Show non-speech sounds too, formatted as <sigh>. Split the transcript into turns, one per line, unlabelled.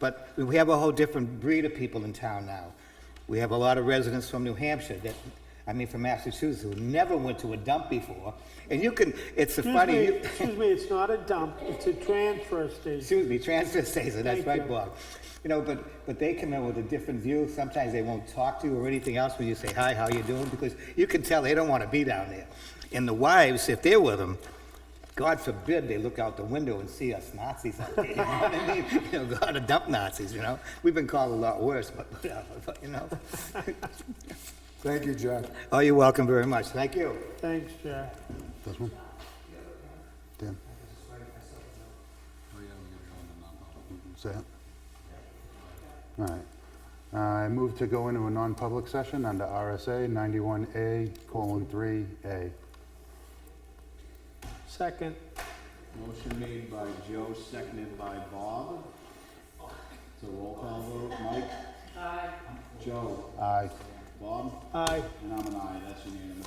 But we have a whole different breed of people in town now. We have a lot of residents from New Hampshire that, I mean, from Massachusetts, who never went to a dump before. And you can, it's a
Excuse
funny,
me,
you-
excuse me, it's not a dump, it's a transfer station.
excuse me, transfer station, that's
Thank
right,
you.
Bob. You know, but, but they come in with a different view. Sometimes they won't talk to you or anything else when you say, hi, how you doing? Because you can tell they don't want to be down there. And the wives, if they're with them, God forbid they look out the window and see us Nazis out there. You know what I
<laughs>
mean? You know, God, a dump Nazis, you know? We've been called a lot worse, but whatever, but, you know? <laughs>
Thank you, Jack.
Oh, you're welcome very much. Thank you.
Thanks, Jack.
This one? Dan? Is that? All right. Uh, I move to go into a non-public session under RSA 91A colon 3A.
Second,
Motion made by Joe, seconded by Bob. So roll call vote, Mike? Aye. Joe?
Aye.
Bob?
aye.
And I'm an aye, that's unanimous.